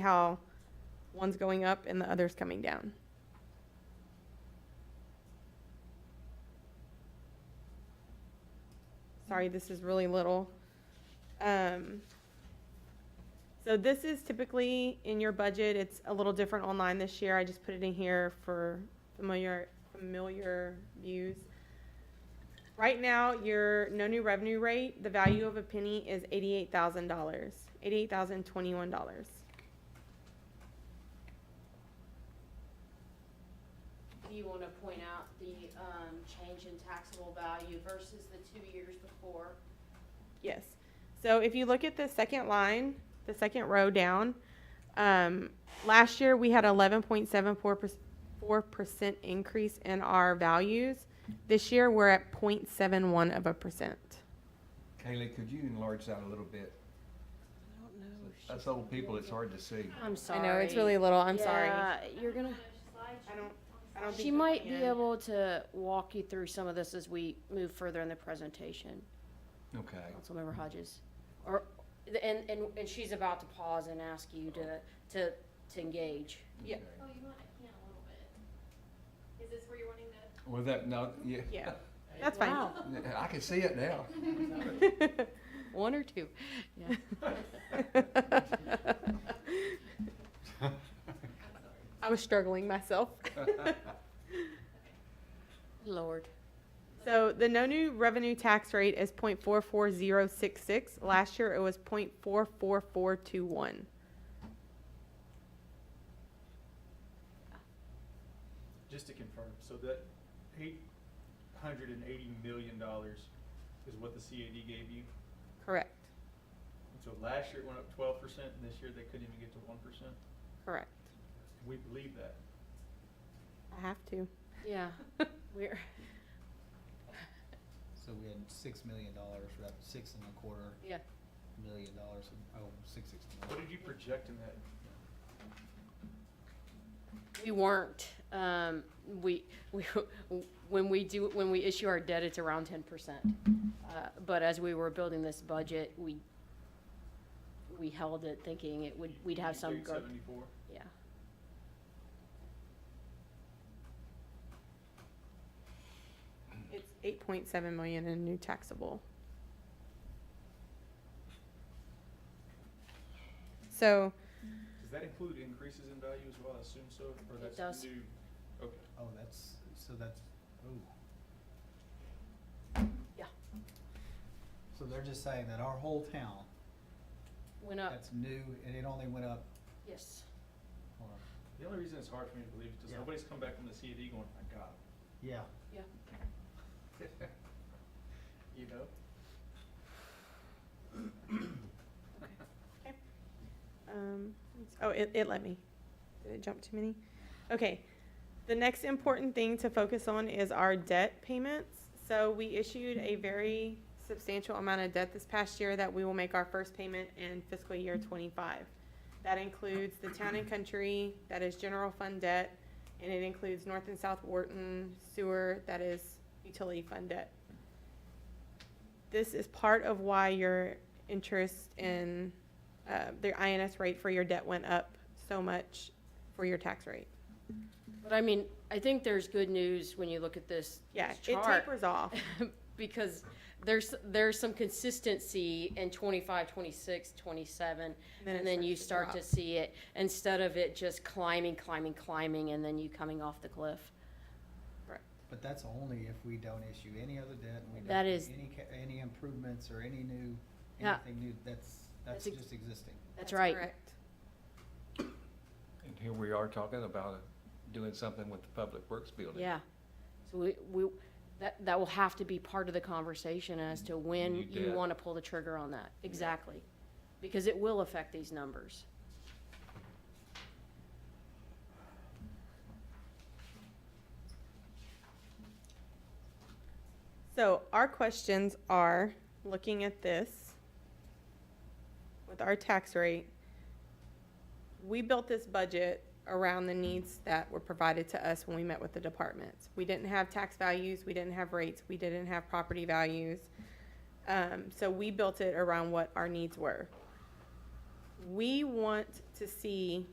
how one's going up and the other's coming down. Sorry, this is really little. Um, so this is typically in your budget. It's a little different online this year. I just put it in here for familiar, familiar views. Right now, your no new revenue rate, the value of a penny is eighty-eight thousand dollars, eighty-eight thousand twenty-one dollars. Do you wanna point out the, um, change in taxable value versus the two years before? Yes. So if you look at the second line, the second row down, um, last year we had eleven point seven four percent, four percent increase in our values. This year we're at 0.71 of a percent. Kaylee, could you enlarge that a little bit? That's old people, it's hard to see. I'm I sorry. know it's really little. I'm sorry. I Yeah, You're gonna, don't. I don't. she think we might be can. able to walk you through some of this as we move further in the presentation, Okay. Councilmember Hodges. Or, and, and, and she's about to pause and ask you to, to, to engage. Yeah. okay. Oh, you want it down a little bit. Is this where you're wanting to? Well, that, no, yeah. Yeah. That's fine. Wow. I can see it now. One or two. Yeah. I was struggling myself. Lord. So the no new revenue tax rate is point four four zero six six. Last year it was point four four four two one. Just to confirm, so that eight hundred and eighty million dollars is what the CAD gave you? Correct, And So last year it went up twelve percent, and this year they couldn't even get to one percent? correct. We believe that. I have to. Yeah, we're, So we had six million dollars, we're up six and a quarter yeah. million dollars, oh, six sixty-one. What did you project in that? We weren't, um, we, we, when we do, when we issue our debt, it's around ten percent. Uh, but as we were building this budget, we, we held it thinking it would, we'd have some, guard- Seventy-four? yeah. It's eight point seven million in new taxable. So, Does that include increases in value as well? I assume so, or It that's does. new? Okay. Oh, that's, so that's, oh. Yeah. So they're just saying that our whole town, Went up, that's new, and it only went up, yes. or, The only reason it's hard for me to believe is because Yeah. nobody's come back from the CAD going, my God, yeah. you know? um, it's- oh, it, it let me. Did it jump too many? Okay. The next important thing to focus on is our debt payments. So we issued a very substantial amount of debt this past year that we will make our first payment in fiscal year twenty-five. That includes the town and country, that is general fund debt, and it includes North and South Wharton sewer, that is utility fund debt. This is part of why your interest in, uh, the INS rate for your debt went up so much for your tax rate. But I mean, I think there's good news when you look at this, Yeah, this it chart. tapers off. because there's, there's some consistency in 25, 26, 27, then and it then you starts start to to see it, instead of it just climbing, climbing, climbing, and then you coming off the cliff. But that's only if we don't issue any other debt, and we That don't do is- any, ca- any improvements or any new, Yeah. anything new, that's, that's That's ex- just existing. That's right. correct. And here we are talking about doing something with the Public Works building. Yeah. So we, we, that, that will have to be part of the conversation as to when You you bet. want to pull the trigger on that. Exactly. Because it will affect these numbers. So our questions are, looking at this, with our tax rate, we built this budget around the needs that were provided to us when we met with the departments. We didn't have tax values, we didn't have rates, we didn't have property values. Um, so we built it around what our needs were. we want to see